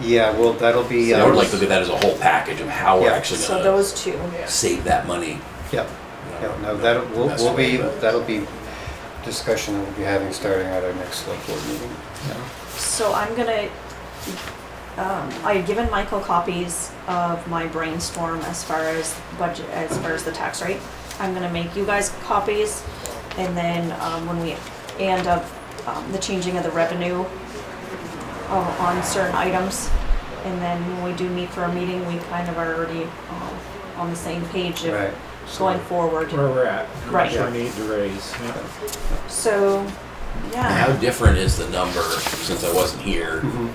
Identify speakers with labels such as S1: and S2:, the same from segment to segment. S1: Yeah, well, that'll be.
S2: So I would
S1: um,
S2: like to look at that as a whole package of how we're
S1: Yeah.
S2: actually
S3: So
S2: going to
S3: those two.
S2: save that money.
S1: Yeah,
S2: you know,
S1: yeah, no, that'll, we'll,
S2: mess
S1: we'll
S2: away,
S1: be,
S2: but-
S1: that'll be discussion that we'll be having starting at our next select board meeting.
S3: So I'm gonna, um, I had given Michael copies of my brainstorm as far as budget, as far as the tax rate. I'm gonna make you guys copies and then, um, when we, and of, um, the changing of the revenue uh, on certain items. And then when we do meet for a meeting, we kind of are already, um, on the same page
S1: Right.
S3: of going forward.
S4: where we're at.
S3: Right.
S4: What we need to raise. yeah.
S3: So,
S2: How
S3: yeah,
S2: different is the number, since I wasn't here,
S1: Mhm.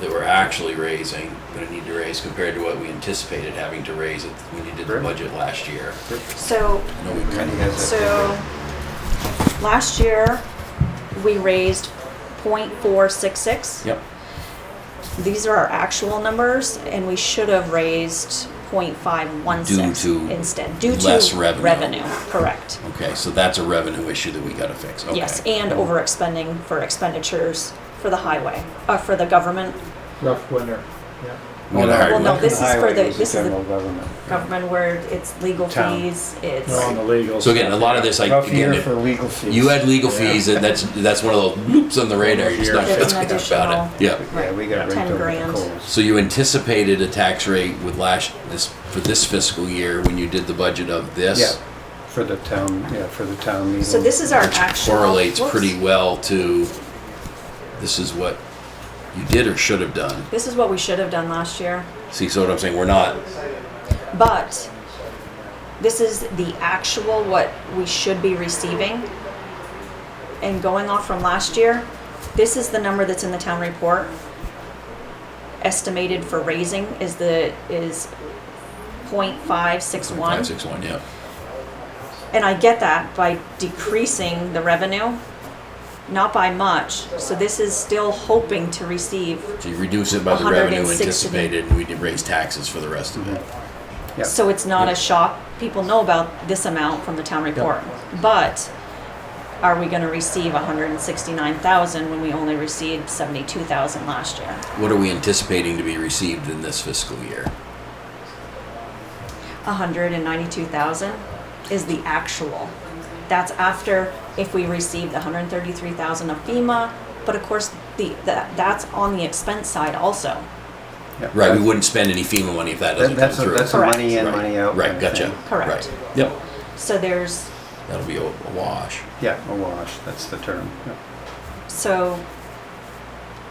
S2: that we're actually raising, going to need to raise compared to what we anticipated having to raise it when you did the
S1: Right.
S2: budget last year?
S3: so
S2: I know we kind
S1: Randy
S2: of
S1: has
S3: So,
S1: that.
S3: last year, we raised .466.
S2: Yep.
S3: These are our actual numbers, and we should have raised .516
S2: Due to
S3: instead. Due to
S2: less revenue.
S3: correct.
S2: Okay, so that's a revenue issue that we got to fix. Okay.
S3: Yes, and over expending for expenditures for the highway, uh, for the government,
S4: Rough winter. Yeah.
S2: We got a hard
S3: Well, no,
S2: one.
S3: this is for
S1: Highway
S3: the-
S1: is
S3: this is the-
S1: General government.
S3: government where it's legal
S1: Town.
S3: fees, it's.
S4: We're on the legal.
S2: So again, a lot of this, I
S1: Rough
S2: again,
S1: year
S2: if
S1: for legal fees.
S2: you had legal
S4: Yeah.
S2: fees, and that's that's one of those loops on the radar. You're just not
S3: There's an
S2: thinking about it.
S3: additional-
S2: Yeah.
S1: Yeah, we got
S3: Right.
S1: raked
S3: 10
S1: over the
S3: grand.
S1: coals.
S2: So you anticipated a tax rate with last this for this fiscal year when you did the budget of this
S1: Yeah, for the town, yeah, for the town meeting.
S3: So this is our actual.
S2: correlates
S3: whoops.
S2: pretty well to this is what you did or should have done.
S3: This is what we should have done last year.
S2: See, so what I'm saying, we're not
S3: But this is the actual what we should be receiving. And going off from last year, this is the number that's in the town report. Estimated for raising is the, is point five six one.
S2: five six one. Yeah,
S3: And I get that by decreasing the revenue, not by much. So this is still hoping to receive.
S2: so you reduce it by the
S3: 160.
S2: revenue anticipated, and we did raise taxes for the rest of it.
S1: Yeah.
S3: So it's not a shock, people know about this amount from the town report. But are we gonna receive hundred and sixty-nine thousand when we only received seventy-two thousand last year?
S1: Mm-hmm.
S2: What are we anticipating to be received in this fiscal year?
S3: hundred and ninety-two thousand is the actual. That's after if we receive the hundred and thirty-three thousand of FEMA, but of course, the, that, that's on the expense side also.
S1: Yeah.
S2: Right, we wouldn't spend any FEMA money if that
S1: That-
S2: doesn't
S1: That's,
S2: come
S1: a-
S2: through.
S1: that's a
S3: Correct.
S1: money in,
S2: Right.
S1: money out.
S2: Right,
S1: kind of
S2: gotcha.
S1: thing.
S3: Correct.
S2: Right. Yep.
S3: So there's,
S2: That'll be a, a wash.
S1: Yeah, a wash, that's the term. yeah.
S3: So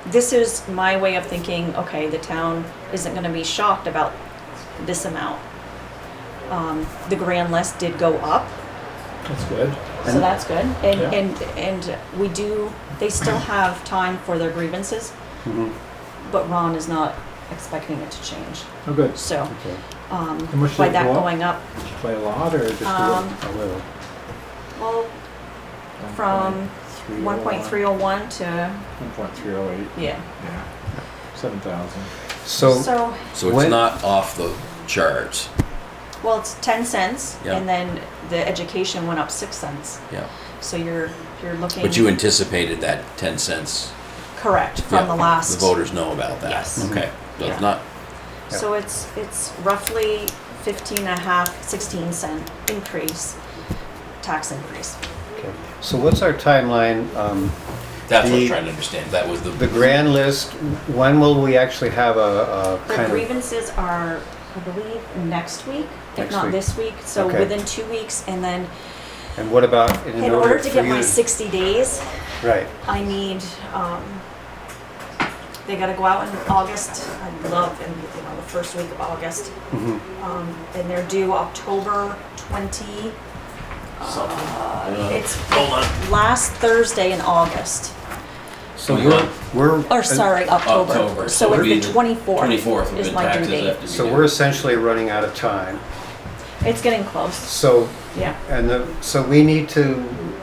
S3: this is my way of thinking, okay, the town isn't gonna be shocked about this amount. Um, the grand list did go up,
S4: That's good.
S3: so
S1: And-
S3: that's good. And,
S4: Yeah.
S3: and, and we do, they still have time for their grievances,
S1: Mhm,
S3: but Ron is not expecting it to change.
S4: Oh, good.
S3: So,
S1: okay,
S3: um,
S4: And what should
S3: by
S4: it
S3: that
S4: go up?
S3: going up,
S4: Did you play a lot or just
S3: um,
S1: a little.
S3: well, from one point three oh one to,
S4: One point three oh eight.
S3: yeah.
S4: Yeah. Seven thousand.
S1: So,
S3: So,
S2: So it's
S1: When-
S2: not off the charts.
S3: well, it's ten cents,
S2: Yeah.
S3: and then the education went up six cents.
S2: Yeah.
S3: So you're, you're looking.
S2: But you anticipated that 10 cents.
S3: Correct, from the
S2: Yeah,
S3: last.
S2: The voters know about that.
S3: Yes.
S1: Mm-hmm.
S2: Okay. So
S3: Yeah.
S2: it's not,
S3: So it's, it's roughly fifteen and a half, sixteen cent increase, tax increase.
S1: okay, so what's our timeline, um,
S2: that's what
S1: The-
S2: I'm trying to understand. That was the,
S1: The grand list, when will we actually have a, a
S3: The
S1: kind of,
S3: grievances are, I believe, next week, if
S1: Next
S3: not
S1: week.
S3: this week, so
S1: Okay.
S3: within two weeks, and then
S1: and what about in
S3: in order to
S1: for
S3: get
S1: you
S3: my sixty days,
S1: Right,
S3: I need, um, they gotta go out in August, I love, and, you know, the first week of August.
S1: mhm,
S3: Um, and they're due October twenty. Uh, it's last Thursday in August,
S1: so
S2: Hold
S1: we're,
S2: on.
S1: we're.
S3: or sorry, October.
S2: October, so
S3: So
S2: it'd be
S3: it's
S2: the
S3: the twenty-fourth
S2: 24th
S3: is
S2: is
S3: my due
S2: taxes
S3: date.
S2: after.
S1: So we're essentially running out of time,
S3: It's getting close,
S1: so,
S3: yeah.
S1: and the, so we need to,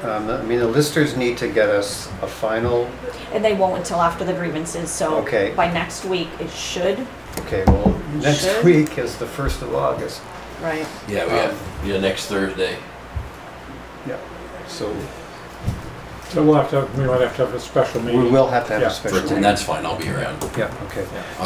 S1: um, I mean, the listers need to get us a final,
S3: And they won't until after the grievances, so
S1: Okay.
S3: by next week it should.
S1: okay, well, next
S3: Sure.
S1: week is the first of August.
S3: Right.
S2: Yeah, we have, yeah, next Thursday.
S1: Yeah, so
S4: So we'll have to, we might have to have a special
S1: we
S4: meeting.
S1: will have to have
S4: Yeah.
S1: a
S4: For
S1: special
S2: And
S1: meeting.
S2: that's fine. I'll be around.
S1: Yeah, okay.